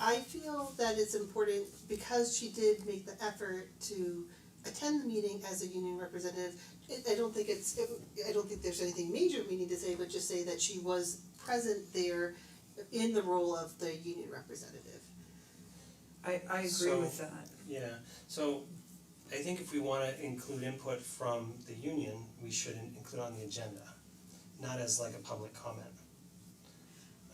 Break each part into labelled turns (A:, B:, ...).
A: I feel that it's important because she did make the effort to attend the meeting as a union representative. It, I don't think it's, it, I don't think there's anything major we need to say, but just say that she was present there in the role of the union representative.
B: I I agree
C: So-
B: with that.
C: Yeah, so I think if we wanna include input from the union, we should in- include on the agenda, not as like a public comment.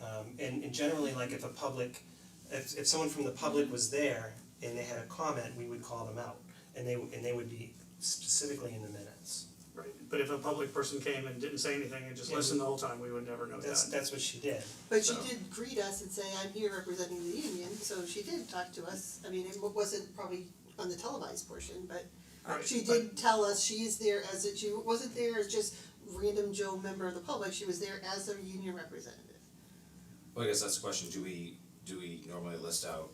C: Um and and generally, like if a public, if if someone from the public was there and they had a comment, we would call them out and they would and they would be specifically in the minutes.
D: Right, but if a public person came and didn't say anything and just
C: Yeah,
D: listened
C: we-
D: the whole time, we would never know
C: That's
D: that.
C: that's what she did.
A: But she
D: So-
A: did greet us and say, I'm here representing the union, so she did talk to us, I mean, it wa- wasn't probably on the televised portion, but
D: Right,
A: she did tell us she is there as a, she wasn't there as just random Joe member of the public, she was there as a union representative.
E: Well, I guess that's the question, do we, do we normally list out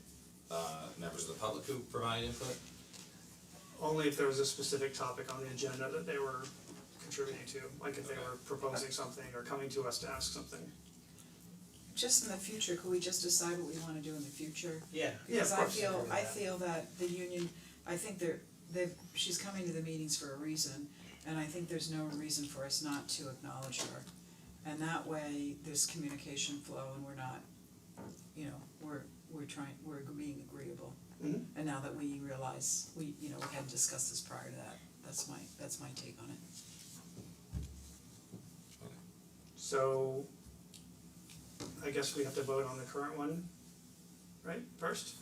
E: uh members of the public who provide input?
D: Only if there was a specific topic on the agenda that they were contributing to, like if they were proposing something or coming to us to ask something.
B: Just in the future, could we just decide what we wanna do in the future?
C: Yeah.
D: Yeah, of
B: Because I
D: course.
B: feel, I feel that the union, I think they're, they've, she's coming to the meetings for a reason, and I think there's no reason for us not to acknowledge her. And that way, there's communication flow and we're not, you know, we're, we're trying, we're being agreeable.
D: Mhm.
B: And now that we realize, we, you know, we hadn't discussed this prior to that, that's my, that's my take on it.
D: So I guess we have to vote on the current one, right, first,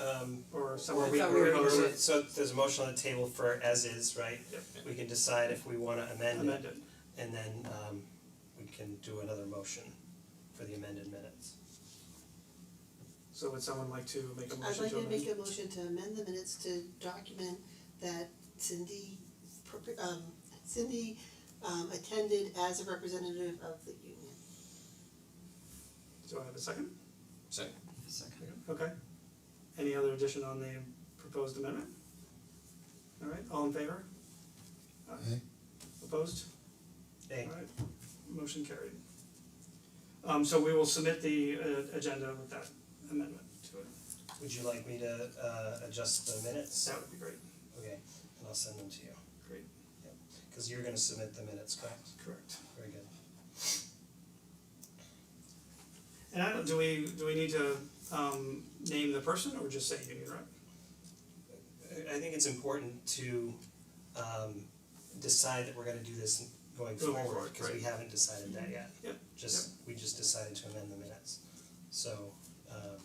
C: Um
D: or
C: or
D: somewhere
C: we
D: we
B: I thought we were gonna
C: or-
B: do
D: propose
B: it.
C: so there's a motion on the table for as is, right?
D: Yep.
C: We can decide if we wanna
D: it,
C: amend it.
D: amend it.
C: And then um we can do another motion for the amended minutes.
D: So would someone like to make a
A: I'd
D: motion
A: like
D: to
A: to
D: amend?
A: make a motion to amend the minutes to document that Cindy, pro- um, Cindy, um, attended as a representative of the union.
D: Do I have a second?
E: So
B: Second.
D: Okay. Any other addition on the proposed amendment? Alright, all in favor? Aye. Opposed?
C: Hey,
D: Alright, motion carried. Um so we will submit the uh agenda with that amendment to it,
C: would you like me to uh adjust the minutes?
D: that would be great,
C: Okay, and I'll send them to you,
D: great,
C: cause you're gonna submit the minutes, correct?
D: correct.
C: Very good.
D: And I don't, do we, do we need to um name the person or just say union rep?
C: I I think it's important to um decide that we're gonna do this going
D: Going
C: forward,
D: forward,
C: cause we
D: right.
C: haven't decided that yet.
D: Yep,
C: Just, we just decided to amend the minutes. So um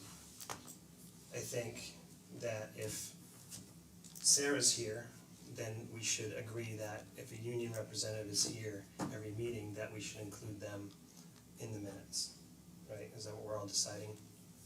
C: I think that if Sarah's here, then we should agree that if a union representative is here every meeting, that we should include them in the minutes. Right, is that what we're all deciding?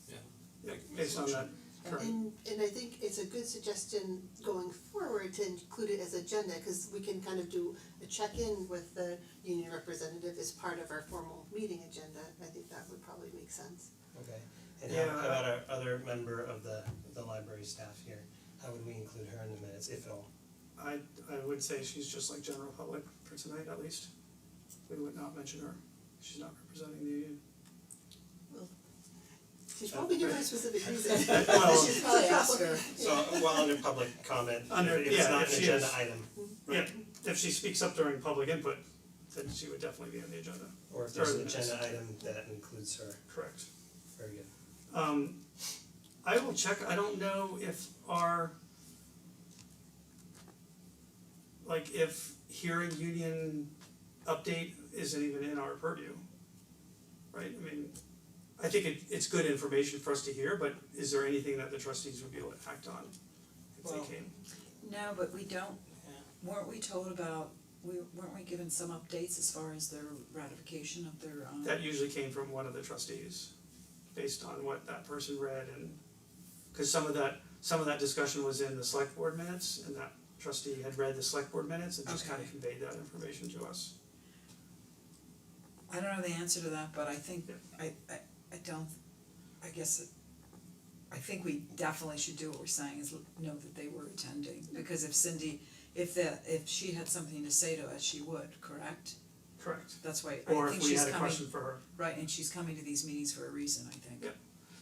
D: Yeah,
E: Like,
D: based on that, correct.
A: And and I think it's a good suggestion going forward to include it as agenda, cause we can kind of do a check-in with the union representative as part of our formal meeting agenda, I think that would probably make sense.
C: Okay, and how
D: Yeah.
C: how about our other member of the the library staff here, how would we include her in the minutes, if at all?
D: I I would say she's just like general public for tonight at least. We would not mention her, she's not representing the union.
A: She's probably given a specific reason,
D: Well-
A: She's probably
B: Ask her.
C: So while under public comment,
D: Under-
C: if it's
D: yeah,
C: not
D: if
C: an
D: she
C: agenda
D: is.
C: item,
D: Yeah, if she speaks up during public input, then she would definitely be on the agenda,
C: or if there's
D: Or
C: an
D: the
C: agenda
D: minutes.
C: item that includes her,
D: correct.
C: very good.
D: Um I will check, I don't know if our like if hearing union update isn't even in our purview. Right, I mean, I think it it's good information for us to hear, but is there anything that the trustees would be able to act on if
C: Well-
D: they came?
B: No, but we don't,
C: Yeah.
B: weren't we told about, we, weren't we given some updates as far as their ratification of their um?
D: That usually came from one of the trustees, based on what that person read and, cause some of that, some of that discussion was in the select board minutes and that trustee had read the select board minutes and just kinda
B: Okay.
D: conveyed that information to us.
B: I don't know the answer to that, but I think,
D: Yeah.
B: I I I don't, I guess it, I think we definitely should do what we're saying is l- know that they were attending, because if Cindy, if the, if she had something to say to us, she would, correct?
D: Correct.
B: That's why I
D: Or
B: think
D: if we
B: she's
D: had a
B: coming,
D: question for her,
B: right, and she's coming to these meetings for a reason, I think.
D: Yeah.